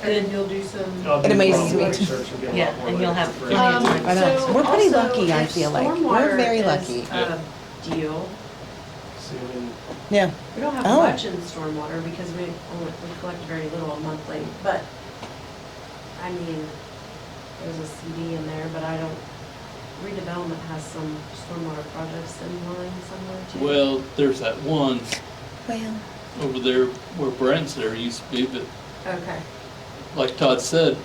And then you'll do some, I'll do It amazes some me. research and get a lot Yeah, more and you'll letters have for plenty it. of Um, time. I know. so We're pretty also, lucky, I if feel like. We're stormwater very is lucky. a Deal. See, I mean, Yeah, We don't have Oh. much in stormwater because we only, we collect very little monthly, but, I mean, there's a CD in there, but I don't, redevelopment has some stormwater projects in line somewhere too. Well, there's that one well, over there where Brent's there used to be, but Okay, like Todd said,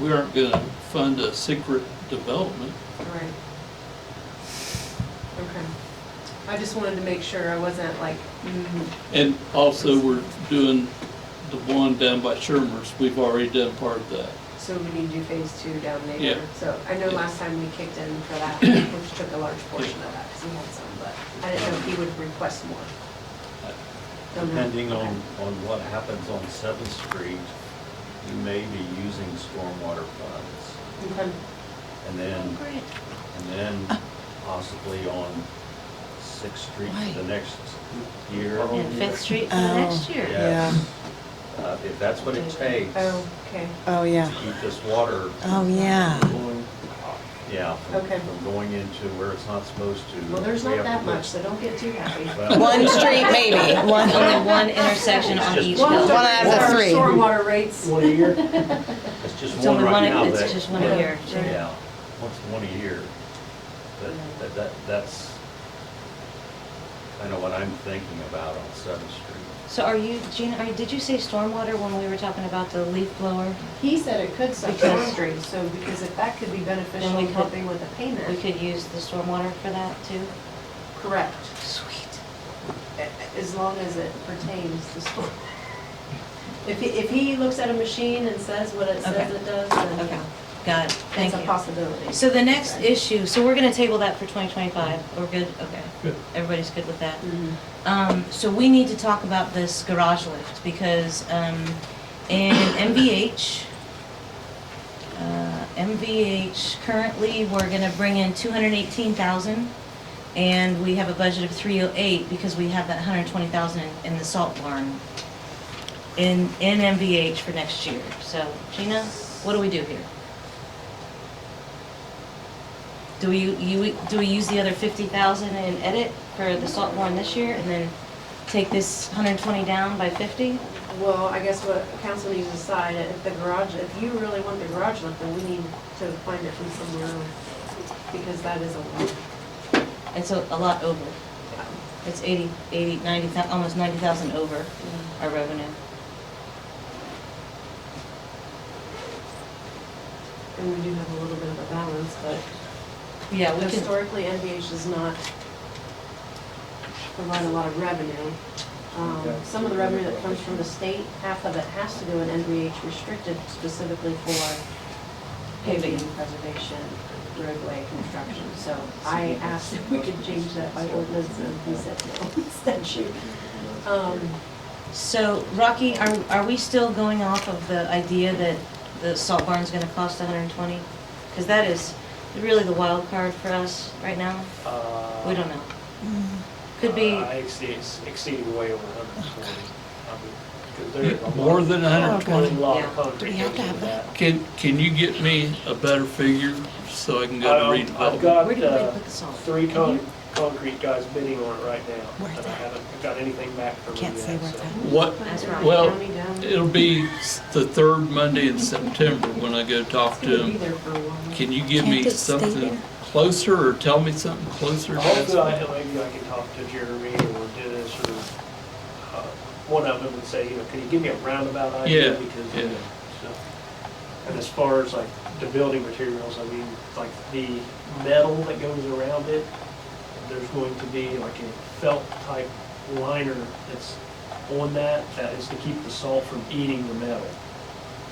we aren't gonna fund a secret development. all right. Okay. I just wanted to make sure I wasn't like, mm, And also, we're doing the one down by Shermer's, we've already done part of that. so we need to do phase two down Yeah. there. So I know Yeah. last time we kicked in for that, which took a large portion of that, because he had some, but I didn't know if he would request more. Uh, Don't know. Depending on, Okay. on what happens on Seventh Street, you may be using stormwater funds. Okay. And Oh, then, and then possibly on Sixth Street the Why? next year. and Fifth Street for Oh. next year. Yes. Uh, If that's what it takes to Okay, oh, yeah, keep this water, oh, yeah. Going yeah, from Okay. from going into where it's not supposed to. well, there's we not have to that put- much, so don't get too happy. Well, One street maybe, one, Only one intersection on It's each just- Well, hill. One out of the our three. Stormwater rates, One a year? It's just It's one only right now one, that. it's just one a Yeah. year. Yeah, once, one a year. That- That, that, that's kind of what I'm thinking about on Seventh Street. So are you, Gina, are, did you say stormwater when we were talking about the leaf blower? he said it could suck Because- downstream, so because if that could be beneficial Then we in could- helping with the We payment, could use the stormwater for that too? correct, Sweet. a- as long as it pertains to storm. If he, if he looks at a machine and says what it says Okay. it does, then Okay, yeah, got it, thank it's a you. possibility. So the next Okay. issue, so we're gonna table that for 2025, we're good, okay. Good. Everybody's good with that? Mhm. Um, so we need to talk about this garage lift because, um, in MVH, uh, MVH, currently, we're gonna bring in two hundred and eighteen thousand and we have a budget of three oh eight because we have that hundred and twenty thousand in the salt barn in, in MVH for next year. So Gina, what do we do here? Do we, you, do we use the other fifty thousand in edit for the salt barn this year and then take this hundred and twenty down by fifty? Well, I guess what council needs to decide, if the garage, if you really want the garage lift, then we need to find it from somewhere else, because that is a lot. It's a, a lot over. It's eighty, eighty, ninety thou, almost ninety thousand over our revenue. And we do have a little bit of a balance, but Yeah, we can, historically, NVH does not provide a lot of revenue. Um, Some of the revenue that comes from the state, half of it has to go in NVH restricted specifically for paving and preservation, roadway construction. So I asked if we could change that by ordinance, and he said no, statute. Um, so Rocky, are, are we still going off of the idea that the salt barn's gonna cost hundred and twenty? Cause that is really the wild card for us right now. Uh, We don't know. Could be, I exceed, exceeding way over hundred and twenty. More than Oh, hundred God. twenty. A lot Yeah. of concrete We goes have into to have that. Can, can you get me a better figure so I can go to Um, I've redevelopment? got, Where did we uh, put the salt? three In con, here? concrete guys bidding on it right now, Where and is I that? haven't got anything back from them Can't say yet, where so. it's at. What, but That's if right. the Well, county down- it'll be s- the third Monday in September when I go talk It's to gonna be him. there for a while. Can you give Can't me it stay something there? closer or tell me something closer? Hopefully, That's- I, maybe I can talk to Jeremy or Dennis or, uh, one of them and say, you know, can you give me a roundabout idea? Yeah, Because, yeah. you know, so. And as far as like the building materials, I mean, like the metal that goes around it, there's going to be like a felt type liner that's on that, that is to keep the salt from eating the metal.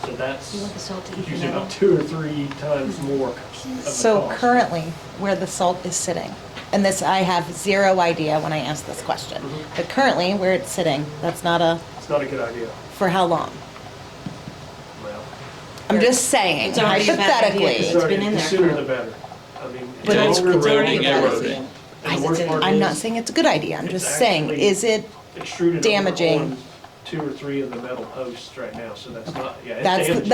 So you that's want the salt to eat the usually metal? about two or three times more of the So cost. currently, where the salt is sitting, and this, I have zero idea when I asked this question, Mhm. but currently, where it's sitting, that's not a, It's not a good idea, for how long? well. I'm just saying, It's already a bad idea. hypothetically. It's been in The there sooner for- the better. I mean. But the it's- longer it's the already better. bad. Eroding. And the worst part I'm not is saying it's a good idea, I'm It's just saying, actually- is it, extruded over damaging. on two or three of the metal posts right now, so that's not, yeah. it's That's the- damaged.